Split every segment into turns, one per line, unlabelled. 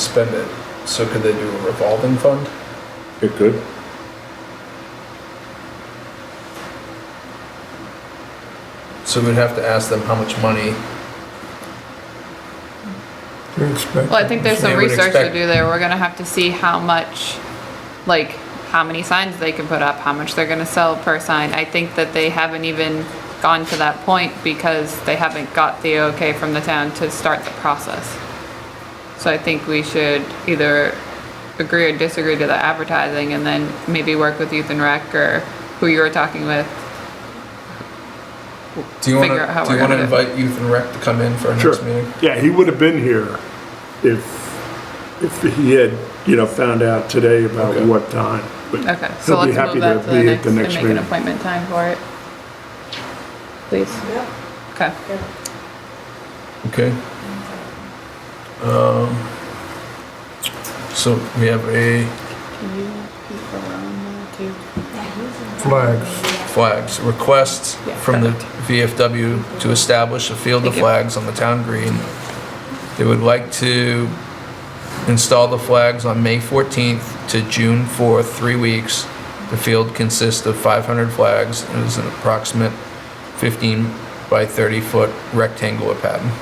spend it. So could they do a revolving fund?
It could.
So we'd have to ask them how much money.
They're expecting.
Well, I think there's
They
some
would
research to
expect-
do there. We're gonna have to see how much, like, how many signs they can put up, how much they're gonna sell per sign. I think that they haven't even gone to that point because they haven't got the okay from the town to start the process. So I think we should either agree or disagree to the advertising and then maybe work with Youth and Rec or who you were talking with.
Do you
Figure out
wanna,
how
do
we're
you wanna
gonna do it.
invite youth and rec to come in for our
Sure.
next meeting?
Yeah, he would have been here if, if he had, you know, found out today
Okay.
about what time. But
Okay, so
he'll be
let's
happy
move that to the
be
next,
at
and make an
meeting.
appointment time for it. Please. Okay.
Okay. Um, so we have a
Can you keep around there too?
Flags.
flags, request
Yeah,
from the VFW to establish a field of
Thank you.
flags on the town green. They would like to install the flags on May 14th to June 4th, three weeks. The field consists of 500 flags and is an approximate 15 by 30 foot rectangular pattern.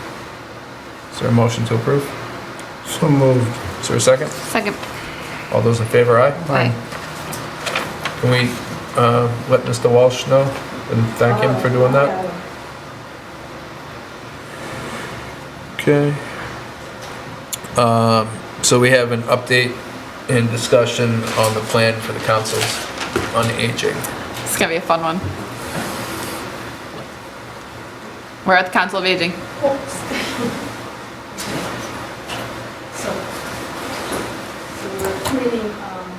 Is there a motion to approve?
So moved.
Is there a second?
Second.
All those in favor, aye? Can we uh, let Mr. Walsh know and thank him for doing that? Okay. Um, So we have an update and discussion on the plan for the councils on aging.
It's gonna be a fun one. We're at the Council of Aging.
So, so we're meeting, um,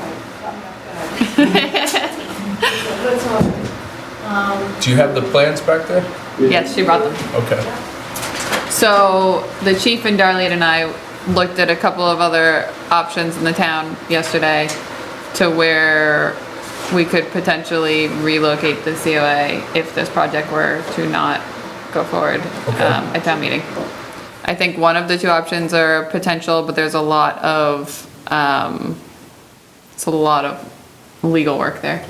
right, I'm not gonna. So Let's all, um,
Do you have the plans back there?
Yes, she brought them.
Okay.
So the chief and Darlene and I looked at a couple of other options in the town yesterday to where we could potentially relocate the COA if this project were to not go forward
Okay.
um, at town meeting. I think one of the two options are potential, but there's a lot of, um, it's a lot of legal work there.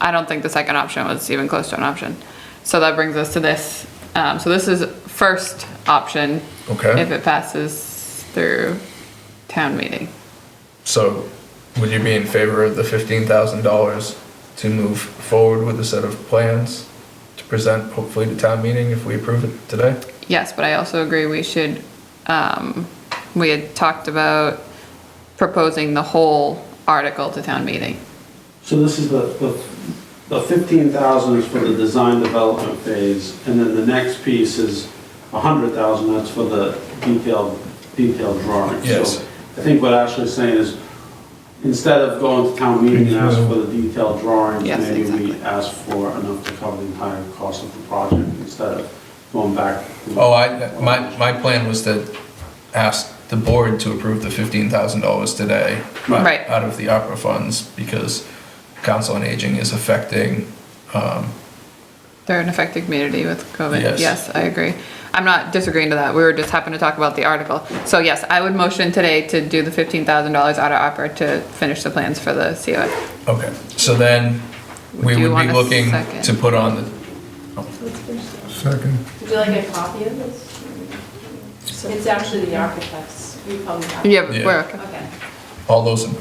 I don't think the second option was even close to an option. So that brings us to this. Um, so this is first option.
Okay.
If it passes through town meeting.
So would you be in favor of the $15,000 to move forward with a set of plans to present hopefully to town meeting if we approve it today?
Yes, but I also agree we should, um, we had talked about proposing the whole article to town meeting.
So this is the, the- the 15,000 is for the design development phase, and then the next piece is 100,000, that's for the detailed, detailed drawings.
Yes.
So I think what Ashley's saying is, instead of going to town meeting and ask for the detailed drawings,
Yes,
maybe we
exactly.
ask for enough to cover the entire cost of the project, instead of going back.
Oh, I, my, my plan was to ask the board to approve the $15,000 today.
Right.
out of the opera funds because council on aging is affecting, um,
They're an affected community with COVID.
Yes.
Yes, I agree. I'm not disagreeing to that. We were just happened to talk about the article. So yes, I would motion today to do the fifteen thousand dollars out of opera to finish the plans for the COA.
okay, so then we
Do you
would
want
be
a
looking
second?
to put on the,
let's finish that.
Second.
Would you like a copy of this? It's actually the architects, we probably have.
Yeah, but
Yeah.
we're okay.
Okay.
all those in,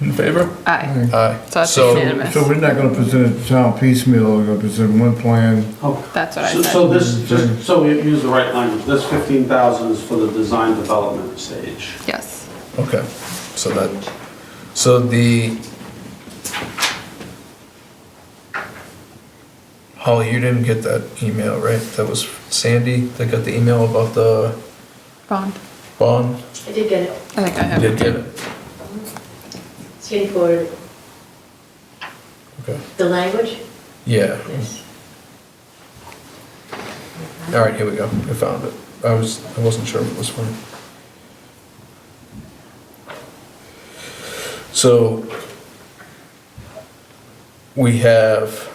in favor?
Aye. So
Aye.
that's
So,
unanimous.
So so we're not gonna present it to town piecemeal, we're gonna present one plan.
Oh,
That's what I
So-
said.
So this, just so we use the right language, this 15,000 is for the design development stage.
Yes.
okay, so that, so the Holly, you didn't get that email, right? That was Sandy that got the email about the
Bond.
bond?
I did get it.
I think I have.
Did get it,
It's getting forwarded.
okay,
The language?
yeah.
Yes.
All right, here we go. I found it. I was, I wasn't sure what was funny. So we have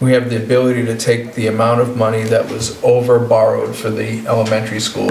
we have the ability to take the amount of money that was over borrowed for the elementary school